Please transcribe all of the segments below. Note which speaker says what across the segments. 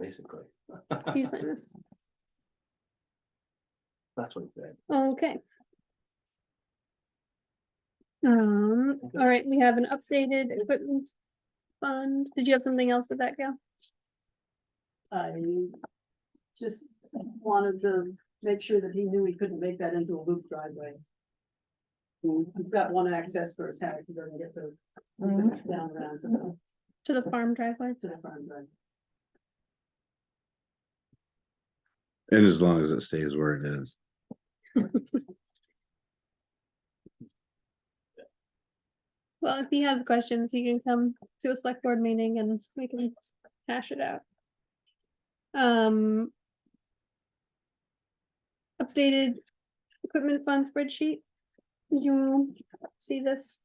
Speaker 1: basically.
Speaker 2: Can you sign this?
Speaker 1: That's what it said.
Speaker 2: Okay. Um,
Speaker 1: Okay.
Speaker 2: all right, we have an updated equipment fund. Did you have something else with that, Gail?
Speaker 3: I just wanted to make sure that he knew he couldn't make that into a loop driveway. He's got one access for his house, he doesn't get the. Down around to the,
Speaker 2: To the farm driveway?
Speaker 3: to the front driveway.
Speaker 4: And as long as it stays where it is.
Speaker 2: Well, if he has questions, he can come to a select board meeting and we can hash it out. Um. Updated equipment fund spreadsheet. Did you see this?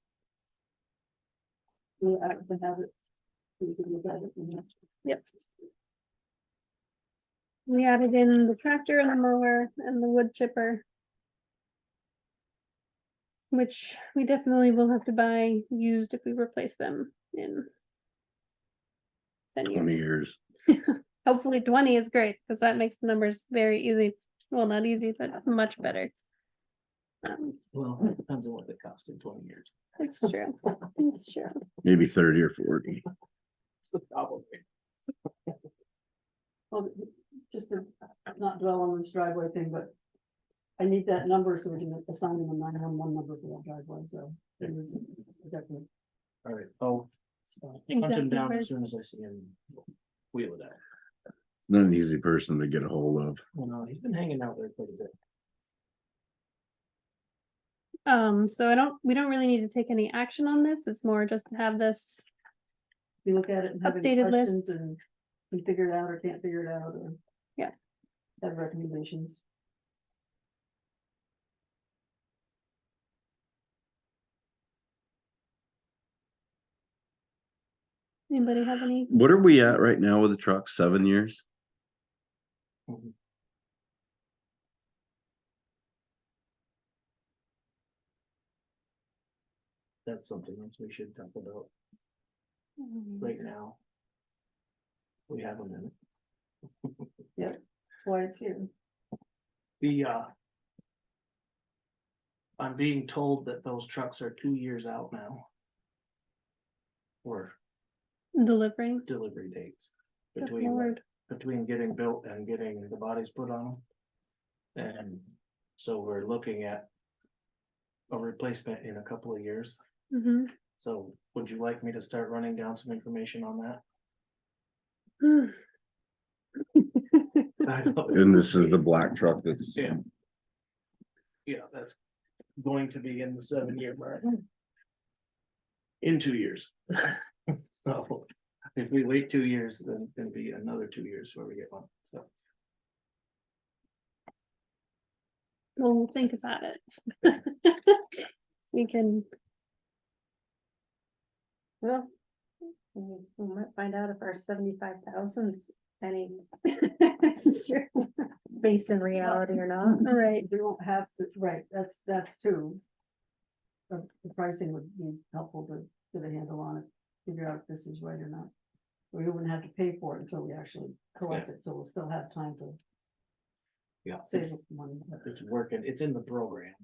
Speaker 3: We actually have it. We can look at it, you know.
Speaker 2: Yep. We added in the tractor and the mower and the wood chipper. Which we definitely will have to buy used if we replace them in. Ten
Speaker 4: twenty
Speaker 2: years,
Speaker 4: years.
Speaker 2: hopefully twenty is great, because that makes the numbers very easy, well, not easy, but much better. Um,
Speaker 1: Well, it depends on what they cost in twenty years.
Speaker 2: it's true, it's true,
Speaker 4: Maybe thirty or forty.
Speaker 1: That's the problem.
Speaker 3: Well, just to not dwell on this driveway thing, but. I need that number so we can assign him a nine one one number for that driveway, so. it is a definite
Speaker 1: All right, I'll
Speaker 3: spot.
Speaker 1: hunt him
Speaker 2: Exactly
Speaker 1: down
Speaker 2: right.
Speaker 1: as soon as I see him. Wheel it out.
Speaker 4: Not an easy person to get a hold of.
Speaker 1: Well, no, he's been hanging out there quite a bit.
Speaker 2: um, so I don't, we don't really need to take any action on this, it's more just to have this
Speaker 3: We look at it and have any
Speaker 2: Updated
Speaker 3: questions
Speaker 2: list.
Speaker 3: and we figure it out or can't figure it out or.
Speaker 2: Yeah.
Speaker 3: Have recommendations.
Speaker 2: Anybody have any?
Speaker 4: What are we at right now with the truck? Seven years?
Speaker 1: That's something else we should talk about right now. We have a minute.
Speaker 3: That's why it's here.
Speaker 1: The, uh. I'm being told that those trucks are two years out now. Or
Speaker 2: Delivering.
Speaker 1: delivery dates
Speaker 2: That's
Speaker 1: between, the-
Speaker 2: hard.
Speaker 1: between getting built and getting the bodies put on them. And so we're looking at a replacement in a couple of years.
Speaker 2: Mhm.
Speaker 1: So would you like me to start running down some information on that? I know it's-
Speaker 4: And this is the black truck that's,
Speaker 1: Yeah. Yeah, that's going to be in the seven year mark. In two years. So if we wait two years, then it's gonna be another two years where we get one, so.
Speaker 2: Well, we'll think about it. We can,
Speaker 5: Well, we we might find out if our seventy-five thousand's any
Speaker 2: Sure.
Speaker 5: based in reality or not.
Speaker 2: all right,
Speaker 3: We won't have, the- right, that's, that's two. The the pricing would be helpful to get a handle on it, figure out if this is right or not. We wouldn't have to pay for it until we actually collect it, so we'll still have time to
Speaker 1: Yeah.
Speaker 3: save up money. But-
Speaker 1: It's working, it's in the program.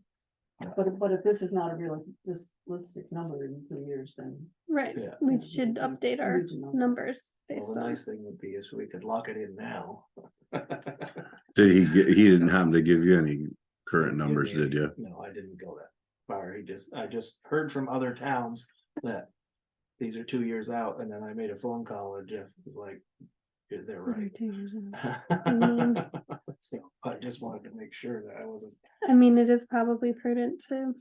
Speaker 3: But, if- but if this is not a real, this listed number in two years, then.
Speaker 2: right.
Speaker 1: Yeah.
Speaker 2: We should update
Speaker 3: we
Speaker 2: our
Speaker 3: need to know.
Speaker 2: numbers
Speaker 1: Well,
Speaker 2: based
Speaker 1: the
Speaker 2: on,
Speaker 1: nice thing would be is we could lock it in now.
Speaker 4: did he, get- he didn't happen to give you any current numbers, did you?
Speaker 1: No, I didn't go that far. He just, I just heard from other towns that these are two years out, and then I made a phone call and Jeff was like, "Yeah, they're
Speaker 2: Mm-hmm.
Speaker 1: right. So I just wanted to make sure that I wasn't,
Speaker 2: I mean, it is probably prudent to,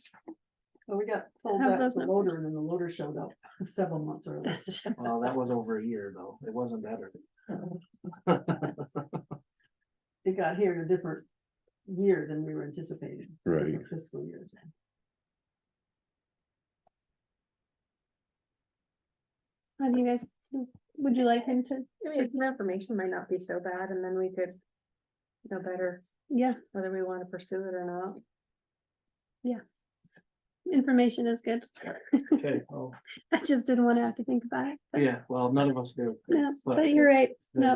Speaker 3: Well, we got told
Speaker 2: Have
Speaker 3: that with
Speaker 2: those
Speaker 3: the loader
Speaker 2: numbers.
Speaker 3: and then the loader showed up several months early.
Speaker 2: that's,
Speaker 1: well, that was over a year though. It wasn't that early.
Speaker 3: It got here in a different year than we were anticipating.
Speaker 4: Right.
Speaker 3: different Fiscal years.
Speaker 2: how do you guys, would you like him to,
Speaker 5: I mean, the information might not be so bad and then we could know better
Speaker 2: yeah,
Speaker 5: whether we want to pursue it or not.
Speaker 2: information is good.
Speaker 1: Okay, well,
Speaker 2: I just didn't want to have to think about it.
Speaker 1: yeah, well, none of us do.
Speaker 2: No, but you're right.